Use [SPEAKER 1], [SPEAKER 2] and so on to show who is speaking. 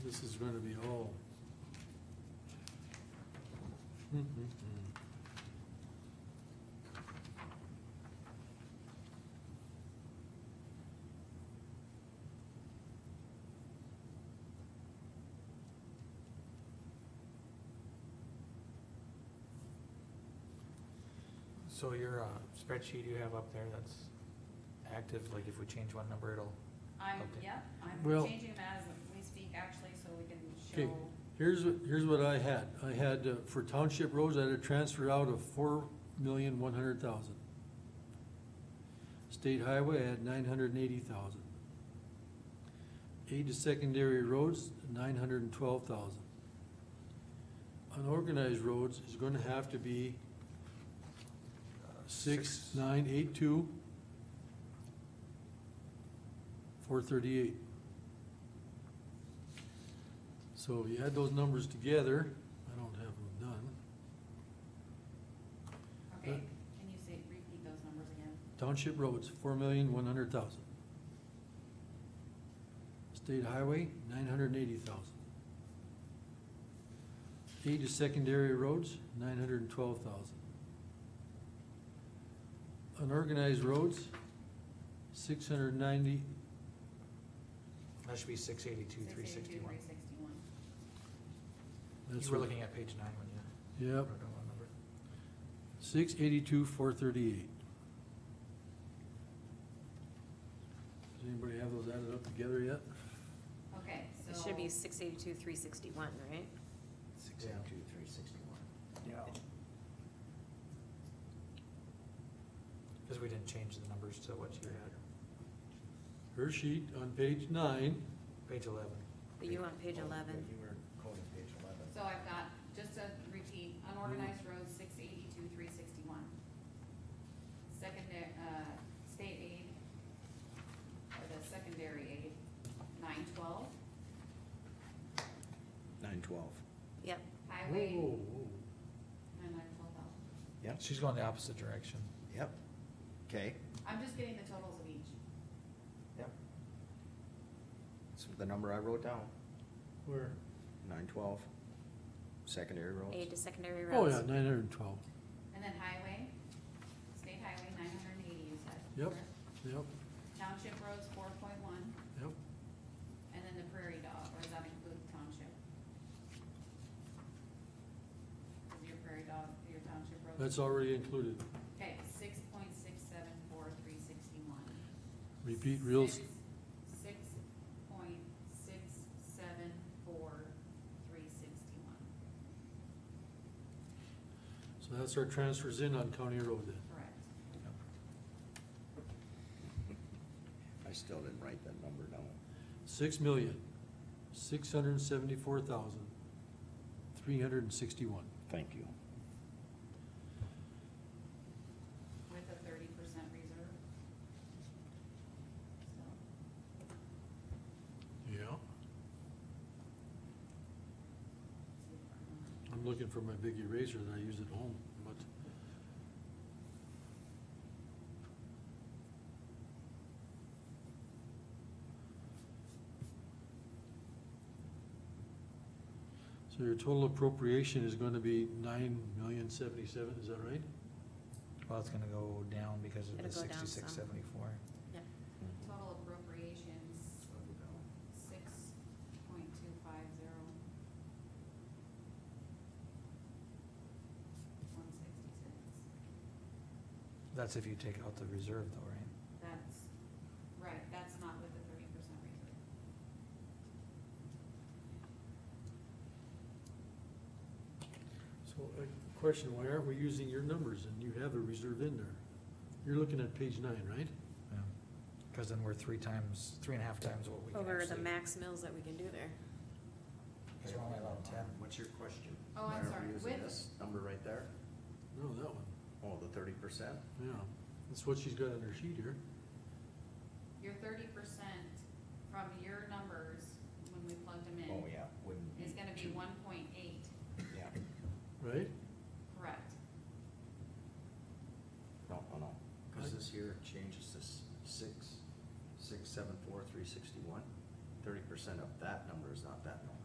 [SPEAKER 1] this is gonna be all.
[SPEAKER 2] So your uh, spreadsheet you have up there, that's active, like if we change one number, it'll,
[SPEAKER 3] I'm,
[SPEAKER 2] Okay.
[SPEAKER 3] yeah, I'm
[SPEAKER 1] Well-
[SPEAKER 3] changing them as we speak actually, so we can
[SPEAKER 1] Okay.
[SPEAKER 3] show,
[SPEAKER 1] Here's, what- here's what I had. I had, uh, for township roads, I had a transfer out of four million, one hundred thousand. State highway, I had nine hundred and eighty thousand. Aid to secondary roads, nine hundred and twelve thousand. Unorganized roads is gonna have to be uh, six,
[SPEAKER 4] Six.
[SPEAKER 1] nine, eight, two, four thirty-eight. So you add those numbers together, I don't have them done.
[SPEAKER 3] okay, can you say, repeat those numbers again?
[SPEAKER 1] Township roads, four million, one hundred thousand. State highway, nine hundred and eighty thousand. Aid to secondary roads, nine hundred and twelve thousand. Unorganized roads, six hundred and ninety,
[SPEAKER 2] that should be six eighty-two, three sixty-one.
[SPEAKER 3] Six eighty-two, three sixty-one.
[SPEAKER 1] that's
[SPEAKER 2] You were
[SPEAKER 1] what,
[SPEAKER 2] looking at page nine when you.
[SPEAKER 1] yep,
[SPEAKER 2] wrote down that number.
[SPEAKER 1] six eighty-two, four thirty-eight. Does anybody have those added up together yet?
[SPEAKER 3] Okay, so.
[SPEAKER 5] It should be six eighty-two, three sixty-one, right?
[SPEAKER 4] Six eight two three sixty-one.
[SPEAKER 2] Cause we didn't change the numbers to what you had,
[SPEAKER 1] Her sheet on page nine,
[SPEAKER 2] page eleven.
[SPEAKER 5] But you on page eleven,
[SPEAKER 4] You were quoting page eleven.
[SPEAKER 3] So I've got, just to repeat, unorganized roads, six eighty-two, three sixty-one. Secondary, uh, state aid, or the secondary aid, nine twelve,
[SPEAKER 4] Nine twelve.
[SPEAKER 5] yep,
[SPEAKER 3] highway,
[SPEAKER 1] Whoa, whoa,
[SPEAKER 3] nine nine twelve thousand.
[SPEAKER 4] Yep,
[SPEAKER 2] She's going the opposite direction.
[SPEAKER 4] yep. Okay,
[SPEAKER 3] I'm just getting the totals of each.
[SPEAKER 4] yep. So the number I wrote down,
[SPEAKER 1] where?
[SPEAKER 4] nine twelve, secondary
[SPEAKER 5] aid
[SPEAKER 4] roads.
[SPEAKER 5] to secondary
[SPEAKER 1] Oh,
[SPEAKER 5] roads.
[SPEAKER 1] yeah, nine hundred and twelve,
[SPEAKER 3] And then highway, state highway, nine hundred and eighty, you said.
[SPEAKER 1] Yep.
[SPEAKER 3] correct?
[SPEAKER 1] yep,
[SPEAKER 3] Township roads, four point one,
[SPEAKER 1] yep,
[SPEAKER 3] and then the prairie dog, or does that include township? Is your prairie dog, your township road?
[SPEAKER 1] that's already included.
[SPEAKER 3] Okay, six point six seven four three sixty-one.
[SPEAKER 1] Repeat real, s-
[SPEAKER 3] Six point six seven four three sixty-one,
[SPEAKER 1] so that's our transfers in on county road then.
[SPEAKER 3] correct.
[SPEAKER 4] I still didn't write that number down.
[SPEAKER 1] Six million, six hundred and seventy-four thousand, three hundred and sixty-one.
[SPEAKER 4] Thank you.
[SPEAKER 3] with a thirty percent reserve. So,
[SPEAKER 1] Yeah.
[SPEAKER 3] see if I'm-
[SPEAKER 1] I'm looking for my big eraser that I use at home, but. So your total appropriation is gonna be nine million seventy-seven, is that right?
[SPEAKER 2] Well, it's gonna go down because of the
[SPEAKER 5] It'll go down some.
[SPEAKER 2] sixty-six, seventy-four.
[SPEAKER 3] Total appropriations, six point two five zero. One sixty-six,
[SPEAKER 2] That's if you take out the reserve though, right?
[SPEAKER 3] that's, right, that's not with the thirty percent reserve.
[SPEAKER 1] So, a question, why aren't we using your numbers and you have a reserve in there? You're looking at page nine, right?
[SPEAKER 2] Yeah. Cause then we're three times, three and a half times what we can
[SPEAKER 5] Over the
[SPEAKER 2] actually.
[SPEAKER 5] max mills that we can do there.
[SPEAKER 2] Cause we're only allowed ten.
[SPEAKER 4] What's your question?
[SPEAKER 3] Oh, I'm
[SPEAKER 4] Why aren't we
[SPEAKER 3] sorry,
[SPEAKER 4] using
[SPEAKER 3] with-
[SPEAKER 4] this Number right there,
[SPEAKER 1] No, that one,
[SPEAKER 4] oh, the thirty percent?
[SPEAKER 1] yeah, that's what she's got on her sheet here.
[SPEAKER 3] Your thirty percent from your numbers, when we plugged them
[SPEAKER 4] Oh,
[SPEAKER 3] in,
[SPEAKER 4] yeah, wouldn't be.
[SPEAKER 3] is gonna be
[SPEAKER 4] too-
[SPEAKER 3] one point eight,
[SPEAKER 4] Yeah,
[SPEAKER 1] Right?
[SPEAKER 3] correct?
[SPEAKER 4] no, no, no, cause
[SPEAKER 1] Right.
[SPEAKER 4] this here changes this six, six, seven, four, three sixty-one. Thirty percent of that number is not that number.